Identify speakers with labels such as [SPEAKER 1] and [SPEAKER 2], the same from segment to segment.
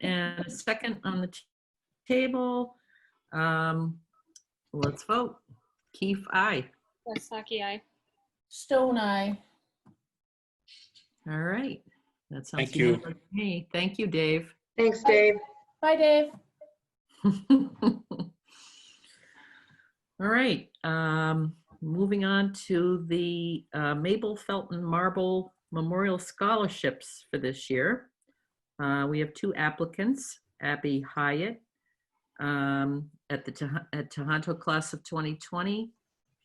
[SPEAKER 1] and a second on the t- table. Um, Let's vote. Keith, aye.
[SPEAKER 2] Westaki, aye.
[SPEAKER 3] Stone Eye.
[SPEAKER 1] All right. That sounds.
[SPEAKER 4] Thank you.
[SPEAKER 1] good to Me, thank you, Dave.
[SPEAKER 5] Thanks, Dave.
[SPEAKER 3] Bye, Dave.
[SPEAKER 1] All right, um, moving on to the uh, Mabel Felton Marble Memorial Scholarships for this year. Uh, we have two applicants, Abby Hyatt, um, at the, Toh- at Tohoto Class of 2020.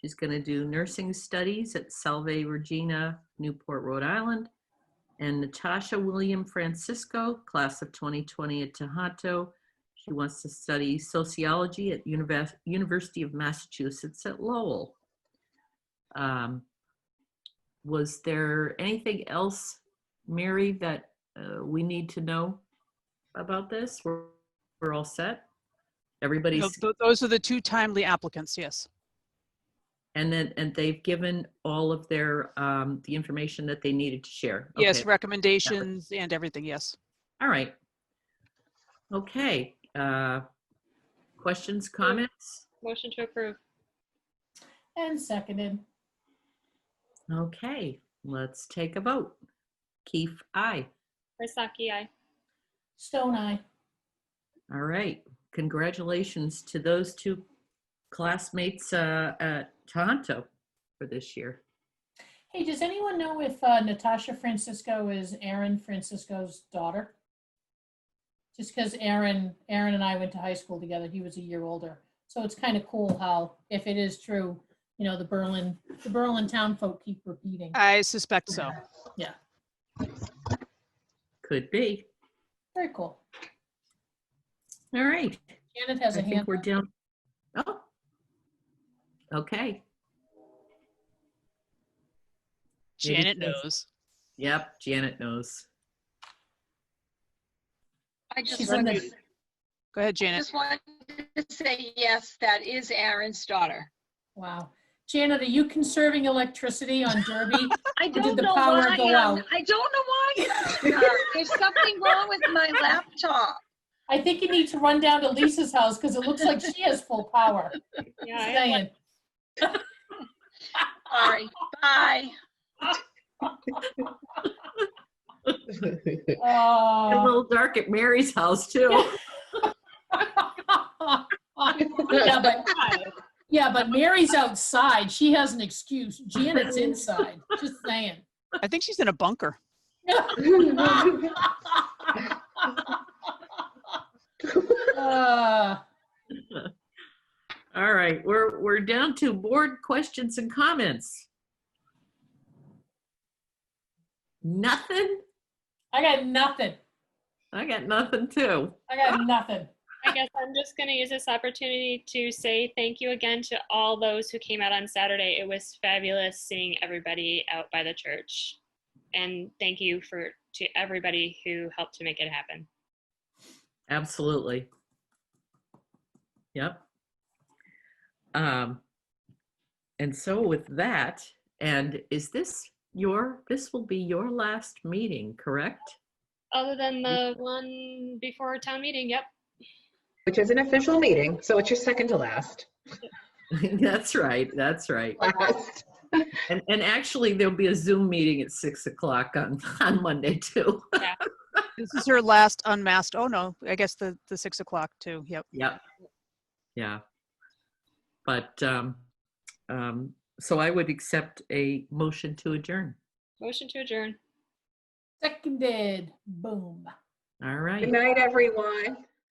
[SPEAKER 1] She's going to do nursing studies at Salve Regina, Newport, Rhode Island. And Natasha William Francisco, Class of 2020 at Tohoto, she wants to study sociology at Univers- University of Massachusetts at Lowell. Um, was there anything else, Mary, that uh, we need to know about this? We're, we're all set. Everybody's
[SPEAKER 6] No, tho- Those are the two timely applicants, yes.
[SPEAKER 1] and then and they've given all of their um, the information that they needed to share.
[SPEAKER 6] Yes,
[SPEAKER 1] Okay.
[SPEAKER 6] recommendations and everything, yes.
[SPEAKER 1] All right. Okay. Uh, questions, comments?
[SPEAKER 2] Motion to approve.
[SPEAKER 3] And seconded.
[SPEAKER 1] Okay, let's take a vote. Keith, aye.
[SPEAKER 2] Westaki, aye.
[SPEAKER 3] Stone Eye.
[SPEAKER 1] All right. Congratulations to those two classmates uh, at Tohoto for this year.
[SPEAKER 3] Hey, does anyone know if uh, Natasha Francisco is Aaron Francisco's daughter? Just because Aaron, Aaron and I went to high school together. He was a year older. So it's kind of cool how, if it is true, you know, the Berlin, the Berlin town folk keep repeating.
[SPEAKER 1] Uh,
[SPEAKER 6] I suspect so.
[SPEAKER 1] Could be.
[SPEAKER 3] Very cool.
[SPEAKER 1] All right.
[SPEAKER 3] Janet has
[SPEAKER 1] I
[SPEAKER 3] a
[SPEAKER 1] think
[SPEAKER 3] hand.
[SPEAKER 1] we're down. Oh. Okay. Maybe
[SPEAKER 6] Janet
[SPEAKER 1] because-
[SPEAKER 6] knows.
[SPEAKER 1] Yep. Janet knows.
[SPEAKER 7] I just
[SPEAKER 3] She's in
[SPEAKER 7] wanted,
[SPEAKER 3] the,
[SPEAKER 6] Go ahead, Janet.
[SPEAKER 7] just wanted to say, yes, that is Aaron's daughter.
[SPEAKER 3] wow. Janet, are you conserving electricity on Derby?
[SPEAKER 7] I
[SPEAKER 3] did
[SPEAKER 7] don't
[SPEAKER 3] the
[SPEAKER 7] know
[SPEAKER 3] power
[SPEAKER 7] why,
[SPEAKER 3] go
[SPEAKER 7] um,
[SPEAKER 3] out?
[SPEAKER 7] I don't know why. uh, There's something wrong with my laptop.
[SPEAKER 3] I think you need to run down to Lisa's house because it looks like she has full power.
[SPEAKER 2] Yeah, I
[SPEAKER 3] Just
[SPEAKER 2] have one.
[SPEAKER 3] saying.
[SPEAKER 7] Sorry, bye.
[SPEAKER 1] A
[SPEAKER 3] Oh.
[SPEAKER 1] little dark at Mary's house, too.
[SPEAKER 3] yeah, but, yeah, but Mary's outside. She has an excuse. Janet's inside. Just saying.
[SPEAKER 6] I think she's in a bunker.
[SPEAKER 3] Uh,
[SPEAKER 1] All right. We're, we're down to board questions and comments. Nothing?
[SPEAKER 3] I got nothing.
[SPEAKER 1] I got nothing too.
[SPEAKER 3] I got nothing.
[SPEAKER 2] I guess I'm just going to use this opportunity to say thank you again to all those who came out on Saturday. It was fabulous seeing everybody out by the church. And thank you for to everybody who helped to make it happen.
[SPEAKER 1] Absolutely. Yep. Um, and so with that, and is this your, this will be your last meeting, correct?
[SPEAKER 2] Other than the one before town meeting, yep.
[SPEAKER 5] Which is an official meeting, so it's your second to last.
[SPEAKER 1] That's right. That's right.
[SPEAKER 5] Last.
[SPEAKER 1] And, and actually there'll be a Zoom meeting at six o'clock on, on Monday too.
[SPEAKER 6] This is her last unmasked, oh no, I guess the, the six o'clock too, yep.
[SPEAKER 1] Yep. Yeah. But, um, um, so I would accept a motion to adjourn.
[SPEAKER 2] Motion to adjourn.
[SPEAKER 3] Seconded. Boom.
[SPEAKER 1] All right.
[SPEAKER 5] Good night, everyone.